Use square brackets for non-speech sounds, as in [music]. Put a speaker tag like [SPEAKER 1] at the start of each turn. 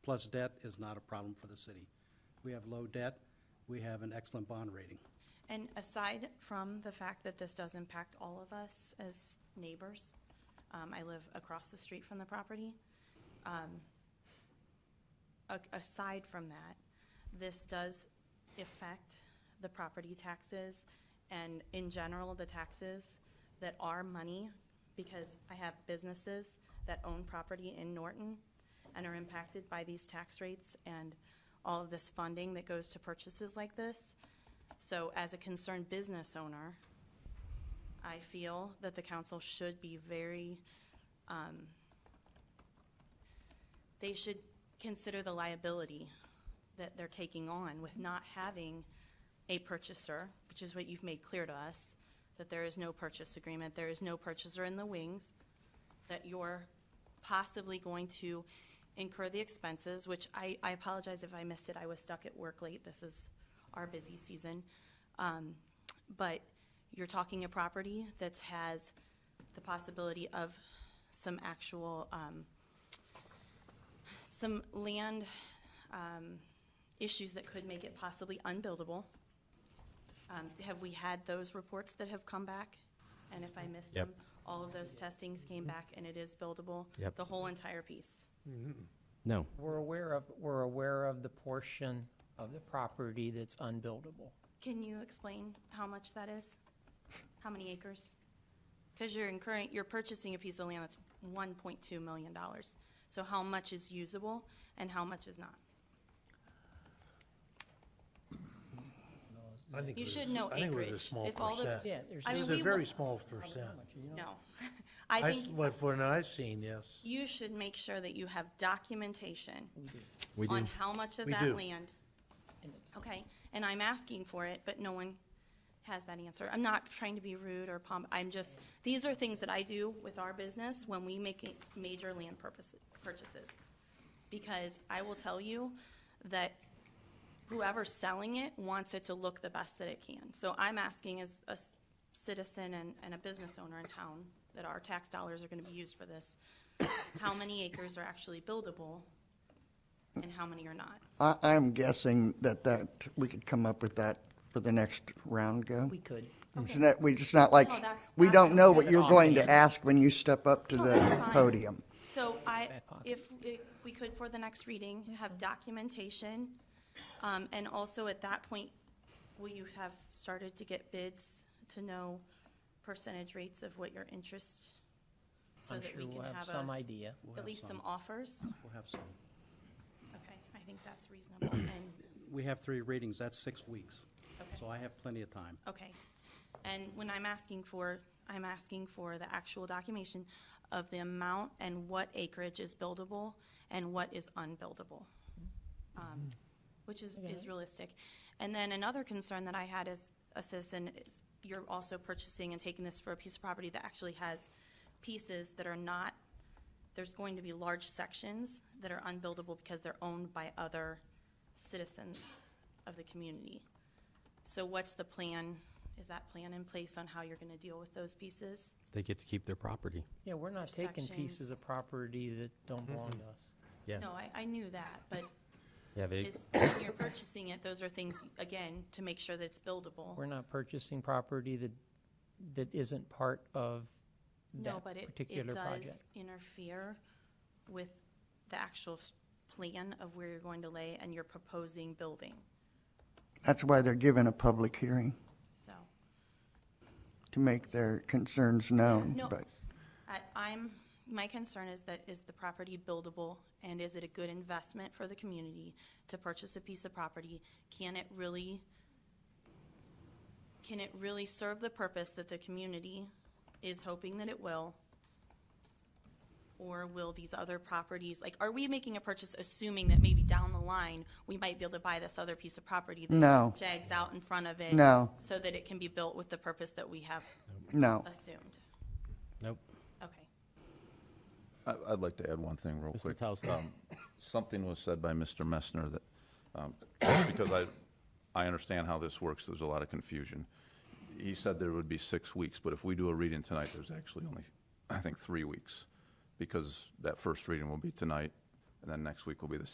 [SPEAKER 1] surplus debt is not a problem for the city. We have low debt, we have an excellent bond rating.
[SPEAKER 2] And aside from the fact that this does impact all of us as neighbors, um, I live across the street from the property. um, a- Aside from that, this does affect the property taxes and in general, the taxes that are money because I have businesses that own property in Norton and are impacted by these tax rates and all of this funding that goes to purchases like this. So as a concerned business owner, I feel that the council should be very, um, they should consider the liability that they're taking on with not having a purchaser, which is what you've made clear to us, that there is no purchase agreement, there is no purchaser in the wings, that you're possibly going to incur the expenses, which I, I apologize if I missed it, I was stuck at work late, this is our busy season. Um, But you're talking a property that has the possibility of some actual, um, some land um, issues that could make it possibly unbuildable. Um, Have we had those reports that have come back? And if I missed
[SPEAKER 3] Yep.
[SPEAKER 2] them, all of those testings came back and it is buildable?
[SPEAKER 3] Yep.
[SPEAKER 2] The whole entire piece?
[SPEAKER 3] No,
[SPEAKER 4] We're aware of, we're aware of the portion of the property that's unbuildable.
[SPEAKER 2] Can you explain how much that is? How many acres? Because you're incurring, you're purchasing a piece of land that's one point two million dollars. So how much is usable and how much is not?
[SPEAKER 5] I think
[SPEAKER 2] You
[SPEAKER 5] it
[SPEAKER 2] should
[SPEAKER 5] was-
[SPEAKER 2] know
[SPEAKER 5] I think it was a
[SPEAKER 2] acreage.
[SPEAKER 5] small
[SPEAKER 2] If all the-
[SPEAKER 5] percent.
[SPEAKER 4] Yeah, there's
[SPEAKER 2] I mean,
[SPEAKER 5] It's
[SPEAKER 4] no,
[SPEAKER 2] we
[SPEAKER 5] a very
[SPEAKER 2] want-
[SPEAKER 5] small percent.
[SPEAKER 2] No. [laughs] I
[SPEAKER 5] I s-
[SPEAKER 2] think
[SPEAKER 5] What, for what I've seen, yes.
[SPEAKER 2] you should make sure that you have documentation
[SPEAKER 3] we do.
[SPEAKER 2] on how much of
[SPEAKER 5] We
[SPEAKER 2] that
[SPEAKER 5] do.
[SPEAKER 2] land,
[SPEAKER 4] and it's-
[SPEAKER 2] okay? And I'm asking for it, but no one has that answer. I'm not trying to be rude or pomp, I'm just, these are things that I do with our business when we make it- major land purposes, purchases. Because I will tell you that whoever's selling it wants it to look the best that it can. So I'm asking as a s- citizen and, and a business owner in town that our tax dollars are gonna be used for this, how many acres are actually buildable and how many are not?
[SPEAKER 6] I, I'm guessing that that, we could come up with that for the next round go.
[SPEAKER 4] we could.
[SPEAKER 6] It's
[SPEAKER 2] Okay.
[SPEAKER 6] not, we, it's not like,
[SPEAKER 2] No, that's-
[SPEAKER 6] we
[SPEAKER 2] that's-
[SPEAKER 6] don't know what
[SPEAKER 2] that's
[SPEAKER 6] you're going to
[SPEAKER 4] offhand.
[SPEAKER 6] ask when you step up to
[SPEAKER 2] Oh, that's
[SPEAKER 6] the
[SPEAKER 2] fine.
[SPEAKER 6] podium.
[SPEAKER 2] So I,
[SPEAKER 4] Back pocket.
[SPEAKER 2] if, if we could for the next reading, have
[SPEAKER 4] Mm-hmm.
[SPEAKER 2] documentation, um, and also at that point, will you have started to get bids to know percentage rates of what your interest? So
[SPEAKER 4] I'm
[SPEAKER 2] that we
[SPEAKER 4] sure we'll
[SPEAKER 2] can
[SPEAKER 4] have
[SPEAKER 2] have
[SPEAKER 4] some
[SPEAKER 2] a,
[SPEAKER 4] idea.
[SPEAKER 1] We'll
[SPEAKER 2] at
[SPEAKER 1] have
[SPEAKER 2] least some
[SPEAKER 4] [clears throat]
[SPEAKER 2] offers?
[SPEAKER 1] We'll have some.
[SPEAKER 2] Okay, I think that's reasonable, and
[SPEAKER 1] We have three readings, that's six weeks. So I have plenty of time.
[SPEAKER 2] Okay. And when I'm asking for, I'm asking for the actual documentation of the amount and what acreage is buildable and what is unbuildable, um, which is, is realistic. And then another concern that I had as a citizen is you're also purchasing and taking this for a piece of property that actually has pieces that are not, there's going to be large sections that are unbuildable because they're owned by other citizens of the community. So what's the plan? Is that plan in place on how you're going to deal with those pieces?
[SPEAKER 3] They get to keep their property.
[SPEAKER 4] Yeah, we're not taking pieces of
[SPEAKER 2] Intersections.
[SPEAKER 4] property that don't belong to us.
[SPEAKER 3] Yeah,
[SPEAKER 2] No, I, I knew that, but
[SPEAKER 3] yeah,
[SPEAKER 2] [coughs]
[SPEAKER 3] they,
[SPEAKER 2] is, when you're purchasing it, those are things, again, to make sure that it's buildable.
[SPEAKER 4] We're not purchasing property that, that isn't part of
[SPEAKER 2] No,
[SPEAKER 4] that
[SPEAKER 2] but it, it
[SPEAKER 4] particular project.
[SPEAKER 2] does interfere with the actual s- plan of where you're going to lay and your proposing building,
[SPEAKER 6] That's why they're given a public hearing,
[SPEAKER 2] so.
[SPEAKER 6] to make their concerns known,
[SPEAKER 2] No,
[SPEAKER 6] but
[SPEAKER 2] I, I'm, my concern is that, is the property buildable, and is it a good investment for the community to purchase a piece of property? Can it really, can it really serve the purpose that the community is hoping that it will? Or will these other properties, like, are we making a purchase assuming that maybe down the line, we might be able to buy this other piece of property? that
[SPEAKER 6] No.
[SPEAKER 2] Jags out in front of it?
[SPEAKER 6] No.
[SPEAKER 2] So that it can be built with the purpose that we have
[SPEAKER 6] no.
[SPEAKER 2] assumed?
[SPEAKER 3] nope.
[SPEAKER 2] Okay.
[SPEAKER 7] I- I'd like to add one thing real
[SPEAKER 3] Mr.
[SPEAKER 7] quick.
[SPEAKER 3] Metowski.
[SPEAKER 7] Um, Something was said by Mr. Messner that, um, just because I, I understand how this works, there's a lot of confusion. He said there would be six weeks, but if we do a reading tonight, there's actually only, I think, three weeks, because that first reading will be tonight, and then next week will be the